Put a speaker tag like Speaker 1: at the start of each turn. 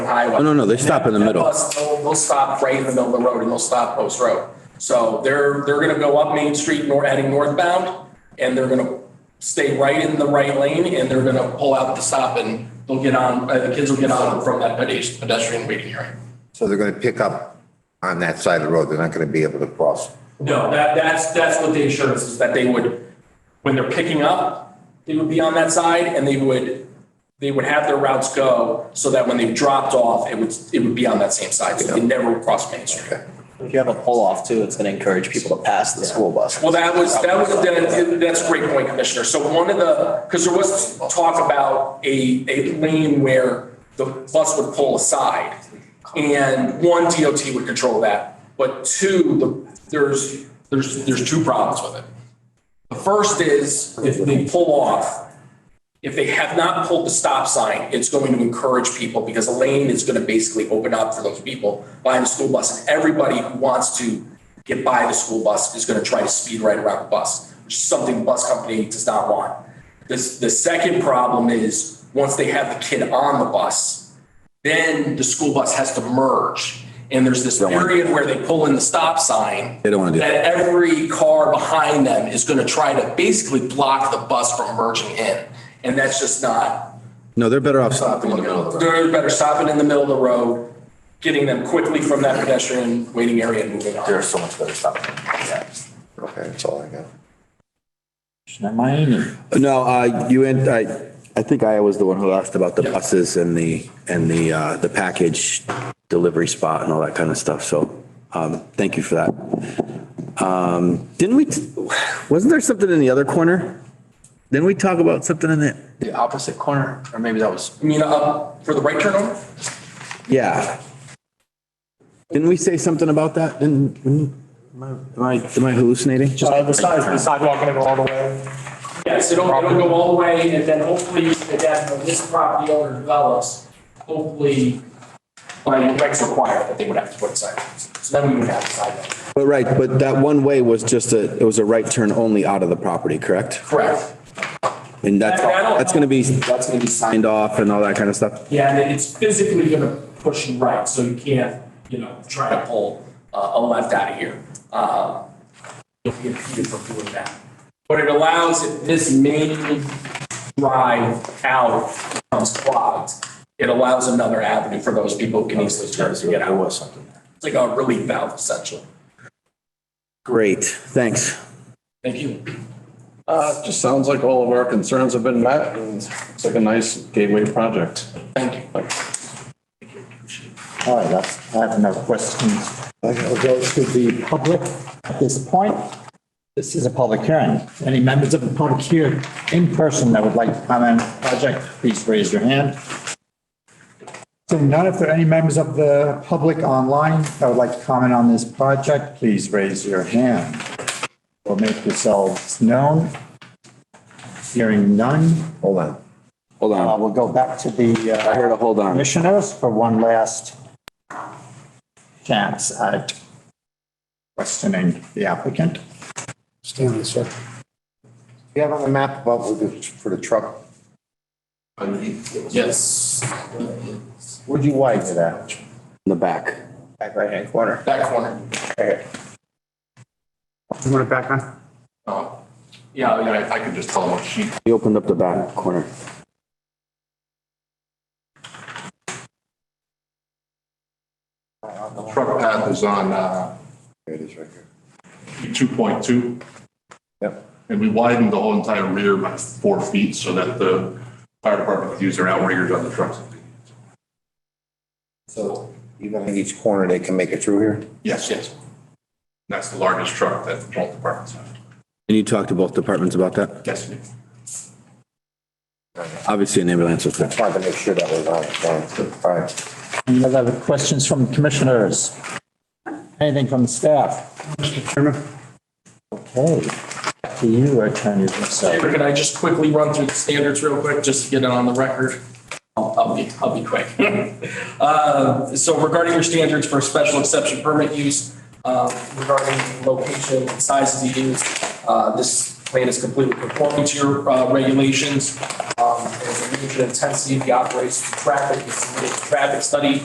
Speaker 1: highway.
Speaker 2: No, no, no, they stop in the
Speaker 1: And that
Speaker 2: middle.
Speaker 1: bus, They'll they'll stop right in the middle of the road and they'll stop Post Road. So they're, they're gonna go up Main Street, nor, heading northbound, and they're gonna stay right in the right lane and they're gonna pull out the stop and they'll get on, uh, the kids will get on from that pedes- pedestrian waiting area.
Speaker 3: So they're going to pick up on that side of the road. They're not going to be able to cross.
Speaker 1: No, that, that's, that's what the assurance is, that they would, when they're picking up, they would be on that side and they would, they would have their routes go so that when they dropped off, it would, it would be on that same side. So they never would cross Main Street.
Speaker 4: If you have a pull-off too, it's gonna encourage people to pass the school bus.
Speaker 1: Well, that was, that was, that- that's a great point, Commissioner. So one of the, because there was talk about a, a lane where the bus would pull aside. And one, DOT would control that, but two, the, there's, there's, there's two problems with it. The first is if they pull off, if they have not pulled the stop sign, it's going to encourage people because a lane is going to basically open up for those people behind the school bus. And everybody who wants to get by the school bus is going to try to speed right around the bus, which is something the bus company does not want. This, the second problem is once they have the kid on the bus, then the school bus has to merge. And there's this
Speaker 2: want-
Speaker 1: period where they pull in the stop sign.
Speaker 2: They don't wanna do that.
Speaker 1: that every car behind them is going to try to basically block the bus from merging in. And that's just not,
Speaker 2: No, they're better off stopping in the middle of the road.
Speaker 1: they're better stopping in the middle of the road, getting them quickly from that pedestrian waiting area and moving on.
Speaker 5: There's so much better stuff.
Speaker 3: Okay, that's all I got.
Speaker 2: No, uh, you, and I, I think I was the one who asked about the buses and the, and the, uh, the package delivery spot and all that kind of stuff. So, um, thank you for that. Um, didn't we, t- wasn't there something in the other corner? Didn't we talk about something in it?
Speaker 5: The opposite corner, or maybe that was,
Speaker 1: I mean, up for the right turn over?
Speaker 2: Yeah. Didn't we say something about that? Didn't, didn't- am I, am I hallucinating?
Speaker 6: Uh, the side, the sidewalk gonna go all the way.
Speaker 1: Yes, it'll, it'll go all the way and then hopefully, and then when this property owner develops, hopefully, by the regs require that they would have to put sidewalks. So then we would have sidewalks.
Speaker 2: But right, but that one way was just a, it was a right turn only out of the property, correct?
Speaker 1: Correct.
Speaker 2: And that's,
Speaker 1: That- that'll-
Speaker 2: that's gonna be, that's gonna be signed off and all that kind of stuff.
Speaker 1: Yeah, and it's physically gonna push you right, so you can't, you know, try to pull uh, a left out of here. Uh, You'll be impeded from doing that. But it allows if this main drive out becomes clogged. It allows another avenue for those people who can easily turn to get
Speaker 5: there
Speaker 1: out.
Speaker 5: was something.
Speaker 1: It's like a relief valve essentially.
Speaker 2: Great, thanks.
Speaker 1: Thank you.
Speaker 7: Uh, just sounds like all of our concerns have been met and it's like a nice gateway project.
Speaker 1: Thank you.
Speaker 5: All right, that's- I have no questions.
Speaker 8: I will go to the public at this point. This is a public hearing. Any members of the public here in person that would like to comment on the project, please raise your hand. Seeing none, if there are any members of the public online that would like to comment on this project, please raise your hand or make yourselves known. Hearing none,
Speaker 3: Hold on.
Speaker 2: Hold
Speaker 8: uh,
Speaker 2: on,
Speaker 8: we'll go back to the
Speaker 2: I
Speaker 8: uh,
Speaker 2: heard a hold on.
Speaker 8: commissioners for one last chance at questioning the applicant.
Speaker 3: Stanley, sir. You have on the map about with the- for the truck,
Speaker 1: Yes,
Speaker 3: where'd you widen it at?
Speaker 2: In the back.
Speaker 8: Back right-hand corner.
Speaker 1: that corner.
Speaker 6: You want it back on?
Speaker 1: Oh, Yeah, I mean, I- I could just tell them what she
Speaker 2: He opened up the back corner.
Speaker 9: truck path is on uh,
Speaker 3: There it is right here.
Speaker 9: 2.2,
Speaker 3: Yep.
Speaker 9: and we widened the whole entire rear by four feet so that the fire department could use their outriggers on the trucks.
Speaker 3: So even in each corner, they can make it through here?
Speaker 9: Yes, yes. That's the largest truck that both departments have.
Speaker 2: And you talked to both departments about that?
Speaker 9: Yes.
Speaker 2: Obviously an ambulance was there.
Speaker 3: Just wanted to make sure that was on. it. Thanks. All right.
Speaker 8: Any other questions from commissioners? Anything from the staff? Okay, back to you, Attorney Russo.
Speaker 1: Chamber, can I just quickly run through the standards real quick, just to get it on the record? I'll I'll be, I'll be quick. Uh, So regarding your standards for special exception permit use, uh, regarding location and size of the use, uh, this plan is completely conforming to your uh, regulations. Um, And the region intensity of the operations of traffic, you submitted a traffic study